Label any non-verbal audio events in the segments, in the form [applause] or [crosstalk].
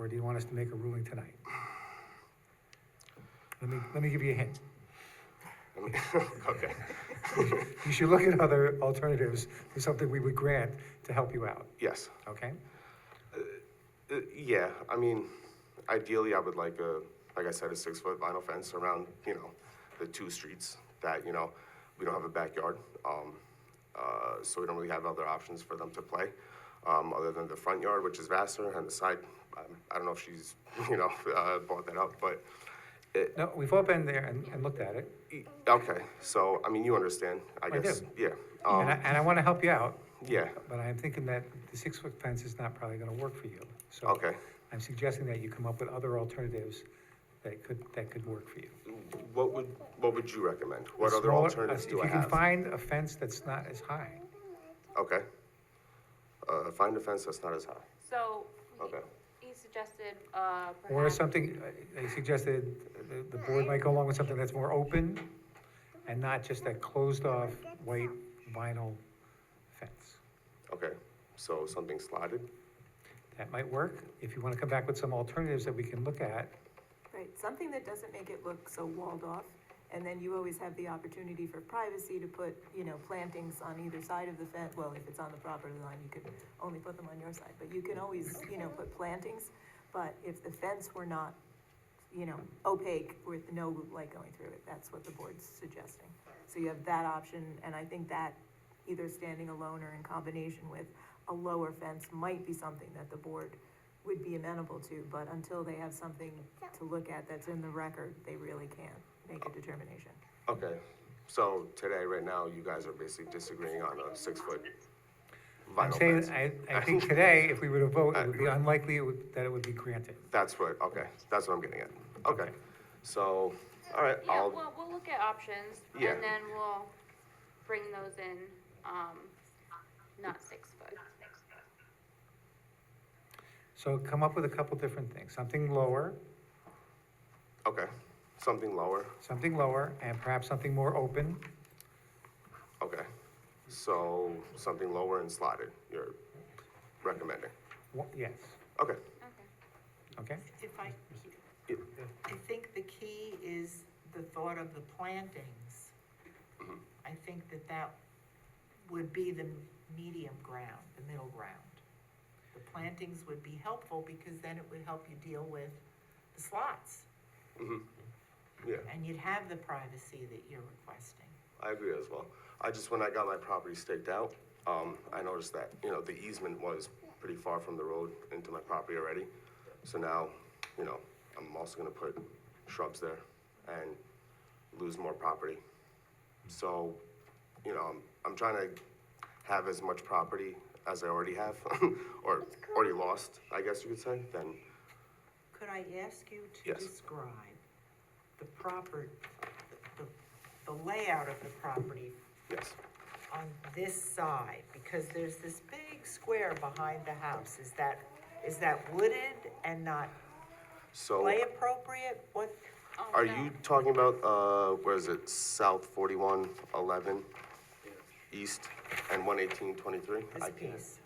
Or do you want us to make a ruling tonight? Let me, let me give you a hint. I mean, [laughs] Okay, You should look at other alternatives for something we would grant to help you out, yes. okay? Uh, Yeah, I mean, ideally, I would like a, like I said, a six-foot vinyl fence around, you know, the two streets that, you know, we don't have a backyard, um, uh, so we don't really have other options for them to play, um, other than the front yard, which is vaster, and the side, um, I don't know if she's, [laughs] you know, uh, brought that up, but it, No, we've all been there and, and looked at it, okay, so, I mean, you understand, I I guess, do. yeah, and I, um, and I want to help you out, yeah, but I'm thinking that the six-foot fence is not probably going to work for you. So okay. I'm suggesting that you come up with other alternatives that could, that could work for you. What would, what would you recommend? What A other smaller- uh, alternatives do If I you can have? find a fence that's not as high, Okay. Uh, find a fence that's not as high. So he- Okay. he suggested, uh, or perhaps, something, I I suggested the, the board might go along with something that's more open and not just that closed-off white vinyl fence. Okay, so something slotted? That might work. If you want to come back with some alternatives that we can look at, Right, something that doesn't make it look so walled off, and then you always have the opportunity for privacy to put, you know, plantings on either side of the fence, well, if it's on the property line, you could only put them on your side, but you can always, you know, put plantings, but if the fence were not, you know, opaque with no light going through it, that's what the board's suggesting. So you have that option, and I think that either standing alone or in combination with a lower fence might be something that the board would be amenable to, but until they have something to look at that's in the record, they really can't make a determination. Okay, so today, right now, you guys are basically disagreeing on a six-foot I'm vinyl saying, fence. I, I [laughs] think today, if we were to vote, it would be unlikely it would- that it would be granted. That's what, okay, that's what I'm getting at. Okay, so, all right, yeah, I'll, well, we'll look at options, Yeah. and then we'll bring those in, um, not six foot. So come up with a couple different things, something lower, okay, something lower, something lower, and perhaps something more open. okay. So something lower and slotted, you're recommending? Wha- Yes, Okay, Okay. okay? If I, Yeah. I think the key is the thought of the plantings. I think that that would be the medium ground, the middle ground. The plantings would be helpful because then it would help you deal with the slots Mm-hmm. yeah. and you'd have the privacy that you're requesting. I agree as well. I just, when I got my property staked out, um, I noticed that, you know, the easement was pretty far from the road into my property already. So now, you know, I'm also gonna put shrubs there and lose more property. So, you know, I'm, I'm trying to have as much property as I already have, [laughs] or already lost, I guess you could say, then, Could I ask you to Yes. describe the proper, the, the layout of the property yes. on this side, because there's this big square behind the house, is that, is that wooded and not So, play appropriate? What, Oh, are no. you talking about, uh, where is it, South forty-one, eleven? East and one eighteen twenty-three? this piece?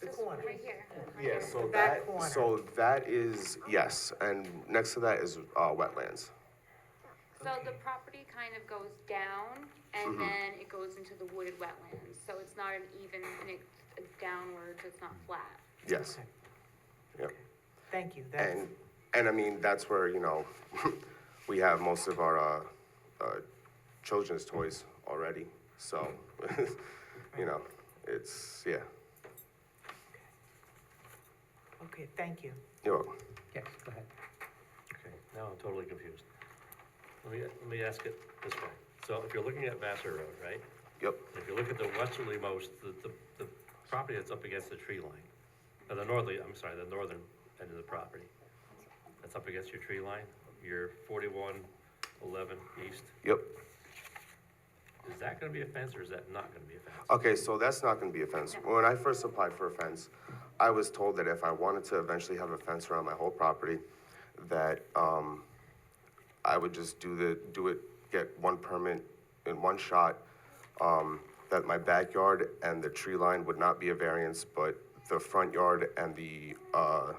The corner, Right here. Yeah, so that, That corner. so that is, yes, and next to that is, uh, wetlands. So the property kind of goes down, and Mm-hmm. then it goes into the wooded wetlands, so it's not an even, and it's it's downwards, it's not flat. Yes, yep. thank you, that's, And, and I mean, that's where, you know, [laughs] we have most of our, uh, uh, children's toys already, so, [laughs] you know, it's, yeah, okay, thank you. you're welcome. Yes, go ahead. Okay, now I'm totally confused. Let me, let me ask it this way. So if you're looking at Vassar Road, right? Yep, If you look at the westerly most, the, the, the property that's up against the tree line, or the northerly, I'm sorry, the northern end of the property, that's up against your tree line, your forty-one eleven east, yep. is that gonna be a fence or is that not gonna be a fence? Okay, so that's not gonna be a fence. When I first applied for a fence, I was told that if I wanted to eventually have a fence around my whole property, that, um, I would just do the, do it, get one permit in one shot, um, that my backyard and the tree line would not be a variance, but the front yard and the, uh,